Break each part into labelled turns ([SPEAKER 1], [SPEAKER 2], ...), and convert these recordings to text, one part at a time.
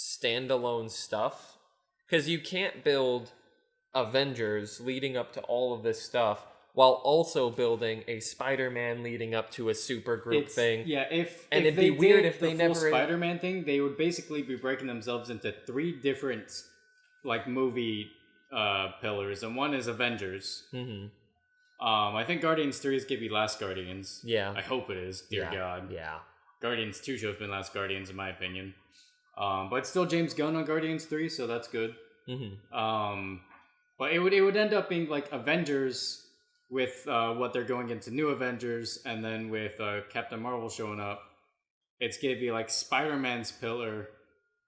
[SPEAKER 1] standalone stuff because you can't build Avengers leading up to all of this stuff while also building a Spider-Man leading up to a super group
[SPEAKER 2] It's-
[SPEAKER 1] thing.
[SPEAKER 2] Yeah, if
[SPEAKER 1] And
[SPEAKER 2] if
[SPEAKER 1] it'd be
[SPEAKER 2] they
[SPEAKER 1] weird
[SPEAKER 2] did
[SPEAKER 1] if they
[SPEAKER 2] the full
[SPEAKER 1] never-
[SPEAKER 2] Spider-Man thing, they would basically be breaking themselves into three different like movie uh, pillars, and one is Avengers.
[SPEAKER 1] hmm
[SPEAKER 2] Um, I think Guardians Three is gonna be Last Guardians.
[SPEAKER 1] Yeah.
[SPEAKER 2] I hope it is. Dear
[SPEAKER 1] yeah.
[SPEAKER 2] God,
[SPEAKER 1] Yeah.
[SPEAKER 2] Guardians Two should have been Last Guardians in my opinion. Um, but still James Gunn on Guardians Three, so that's good.
[SPEAKER 1] hmm
[SPEAKER 2] Um, but it would it would end up being like Avengers with uh, what they're going into New Avengers, and then with uh, Captain Marvel showing up, it's gonna be like Spider Man's pillar,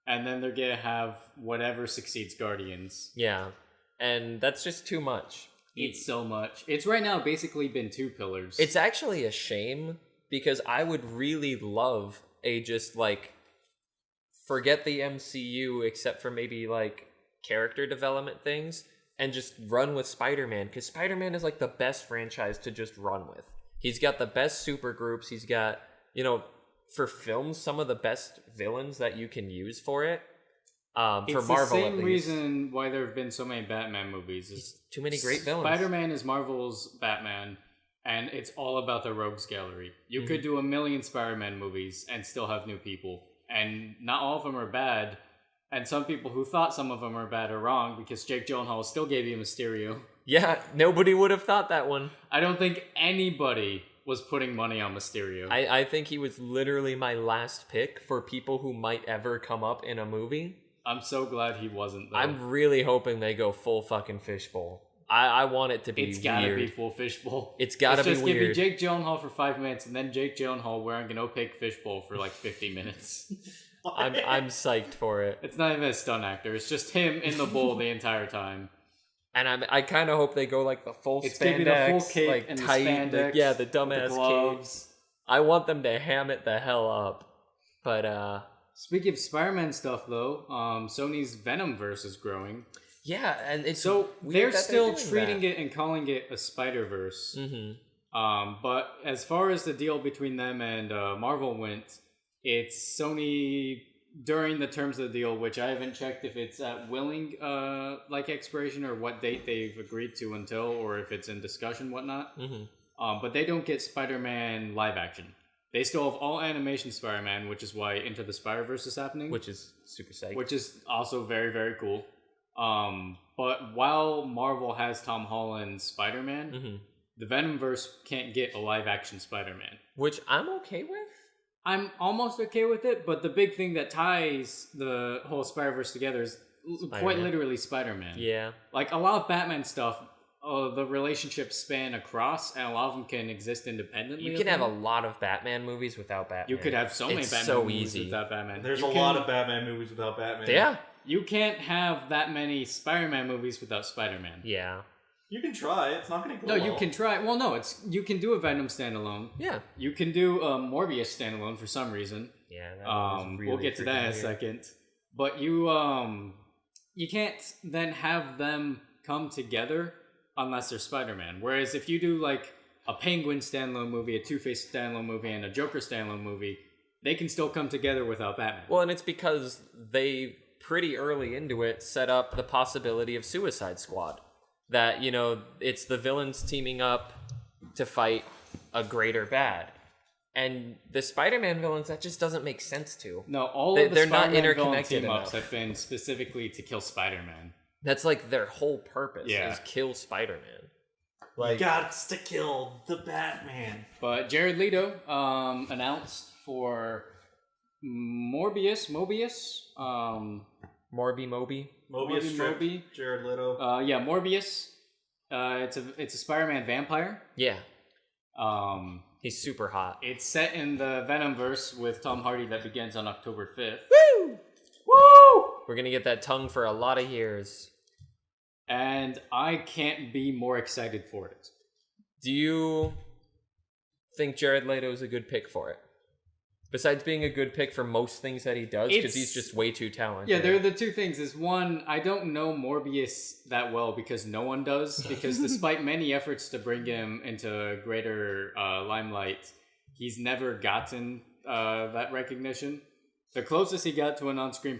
[SPEAKER 2] and then they're gonna have whatever succeeds Guardians.
[SPEAKER 1] Yeah. And that's just too much.
[SPEAKER 2] It's so much. It's right now basically been two pillars.
[SPEAKER 1] It's actually a shame because I would really love a just like forget the MCU except for maybe like character development things and just run with Spider-Man cuz Spider-Man is like the best franchise to just run with. He's got the best super groups, he's got, you know, for films some of the best villains that you can use for it. Um for
[SPEAKER 2] It's
[SPEAKER 1] Marvel
[SPEAKER 2] the
[SPEAKER 1] at
[SPEAKER 2] same
[SPEAKER 1] least.
[SPEAKER 2] reason why there have been so many Batman movies. Is
[SPEAKER 1] too many great villains.
[SPEAKER 2] Spider-Man is Marvel's Batman, and it's all about the rogues gallery. You
[SPEAKER 1] Mhm.
[SPEAKER 2] could do a million Spider-Man movies and still have new people, and not all of them are bad. And some people who thought some of them are bad are wrong because Jake Gyllenhaal still gave you Mysterio.
[SPEAKER 1] Yeah, nobody would have thought that one.
[SPEAKER 2] I don't think anybody was putting money on Mysterio.
[SPEAKER 1] I, I think he was literally my last pick for people who might ever come up in a movie.
[SPEAKER 2] I'm so glad he wasn't. Though.
[SPEAKER 1] I'm really hoping they go full fucking fishbowl. I, I want it to be
[SPEAKER 2] It's gotta
[SPEAKER 1] weird.
[SPEAKER 2] be full fishbowl.
[SPEAKER 1] It's gotta
[SPEAKER 2] It's
[SPEAKER 1] be
[SPEAKER 2] just give me
[SPEAKER 1] weird.
[SPEAKER 2] Jake Gyllenhaal for five minutes, and then Jake Gyllenhaal wearing an opaque fishbowl for like fifty minutes.
[SPEAKER 1] I'm I'm psyched for it,
[SPEAKER 2] It's not even a stunt actor. It's just him in the bowl the entire time.
[SPEAKER 1] and I'm I kind of hope they go like the full
[SPEAKER 2] It's gonna be the
[SPEAKER 1] spandex,
[SPEAKER 2] full cape
[SPEAKER 1] like
[SPEAKER 2] and the
[SPEAKER 1] tight, like,
[SPEAKER 2] spandex,
[SPEAKER 1] yeah, the
[SPEAKER 2] with
[SPEAKER 1] dumbass
[SPEAKER 2] the
[SPEAKER 1] cape.
[SPEAKER 2] gloves.
[SPEAKER 1] I want them to ham it the hell up, but uh,
[SPEAKER 2] Speaking of Spider-Man stuff, though, um, Sony's Venom verse is growing.
[SPEAKER 1] yeah, and it's
[SPEAKER 2] So they're Mm.
[SPEAKER 1] weird that
[SPEAKER 2] still
[SPEAKER 1] doing
[SPEAKER 2] treating
[SPEAKER 1] that.
[SPEAKER 2] it and calling it a Spider Verse.
[SPEAKER 1] Mhm.
[SPEAKER 2] Um, but as far as the deal between them and uh, Marvel went, it's Sony during the terms of the deal, which I haven't checked if it's at willing uh, like expiration or what date they've agreed to until, or if it's in discussion, whatnot.
[SPEAKER 1] Mhm.
[SPEAKER 2] Um, but they don't get Spider-Man live action. They still have all animation Spider-Man, which is why Into the Spider-Verse is happening,
[SPEAKER 1] which is super psyched.
[SPEAKER 2] which is also very very cool. Um, but while Marvel has Tom Holland's Spider-Man,
[SPEAKER 1] hmm
[SPEAKER 2] the Venomverse can't get a live action Spider Man.
[SPEAKER 1] which I'm okay with.
[SPEAKER 2] I'm almost okay with it, but the big thing that ties the whole Spider Verse together is l- quite
[SPEAKER 1] Spider-Man.
[SPEAKER 2] literally Spider Man.
[SPEAKER 1] Yeah.
[SPEAKER 2] Like a lot of Batman stuff, uh, the relationships span across, and a lot of them can exist independently.
[SPEAKER 1] You
[SPEAKER 2] of
[SPEAKER 1] can have a
[SPEAKER 2] them.
[SPEAKER 1] lot of Batman movies without Batman.
[SPEAKER 2] You could have so many
[SPEAKER 1] It's
[SPEAKER 2] Batman
[SPEAKER 1] so
[SPEAKER 2] movies
[SPEAKER 1] easy.
[SPEAKER 2] without Batman.
[SPEAKER 3] There's
[SPEAKER 2] You
[SPEAKER 3] a
[SPEAKER 2] can-
[SPEAKER 3] lot of Batman movies without Batman.
[SPEAKER 1] Yeah.
[SPEAKER 2] You can't have that many Spider Man movies without Spider Man.
[SPEAKER 1] Yeah.
[SPEAKER 3] You can try. It's not going to
[SPEAKER 2] No,
[SPEAKER 3] go
[SPEAKER 2] you
[SPEAKER 3] well.
[SPEAKER 2] can try. Well, no, it's you can do a Venom standalone.
[SPEAKER 1] Yeah.
[SPEAKER 2] You can do a Morbius standalone for some reason.
[SPEAKER 1] Yeah. that was
[SPEAKER 2] um,
[SPEAKER 1] really
[SPEAKER 2] we'll get to that in a
[SPEAKER 1] freaking weird.
[SPEAKER 2] second. But you um you can't then have them come together unless they're Spider-Man. Whereas if you do like a Penguin standalone movie, a Two-Face standalone movie, and a Joker standalone movie, they can still come together without Batman.
[SPEAKER 1] Well, and it's because they pretty early into it set up the possibility of Suicide Squad. That, you know, it's the villains teaming up to fight a greater bad. And the Spider Man villains, that just doesn't make sense to.
[SPEAKER 2] no, all
[SPEAKER 1] they-
[SPEAKER 2] of the
[SPEAKER 1] they're not
[SPEAKER 2] Spider-Man villain
[SPEAKER 1] interconnected
[SPEAKER 2] team ups
[SPEAKER 1] enough.
[SPEAKER 2] have been specifically to kill Spider-Man.
[SPEAKER 1] That's like their whole purpose
[SPEAKER 2] Yeah.
[SPEAKER 1] is kill Spider Man.
[SPEAKER 3] Like, got to kill the Batman.
[SPEAKER 2] But Jared Leto um, announced for Morbius, Mobius, um,
[SPEAKER 1] Morby Moby.
[SPEAKER 3] Mobius
[SPEAKER 2] Morbi
[SPEAKER 3] Strip,
[SPEAKER 2] Mobi.
[SPEAKER 3] Jared Leto.
[SPEAKER 2] Uh, yeah, Morbius. Uh, it's a it's a Spider-Man vampire.
[SPEAKER 1] Yeah.
[SPEAKER 2] Um,
[SPEAKER 1] He's super hot.
[SPEAKER 2] it's set in the Venomverse with Tom Hardy that begins on October fifth.
[SPEAKER 1] Woo!
[SPEAKER 2] Woo!
[SPEAKER 1] We're gonna get that tongue for a lot of years.
[SPEAKER 2] And I can't be more excited for it.
[SPEAKER 1] Do you think Jared Leto is a good pick for it? Besides being a good pick for most things that he does, because
[SPEAKER 2] It's-
[SPEAKER 1] he's just way too talented.
[SPEAKER 2] Yeah, there are the two things. Is one, I don't know Morbius that well because no one does. Because despite many efforts to bring him into greater uh, limelight, he's never gotten uh, that recognition. The closest he got to an on-screen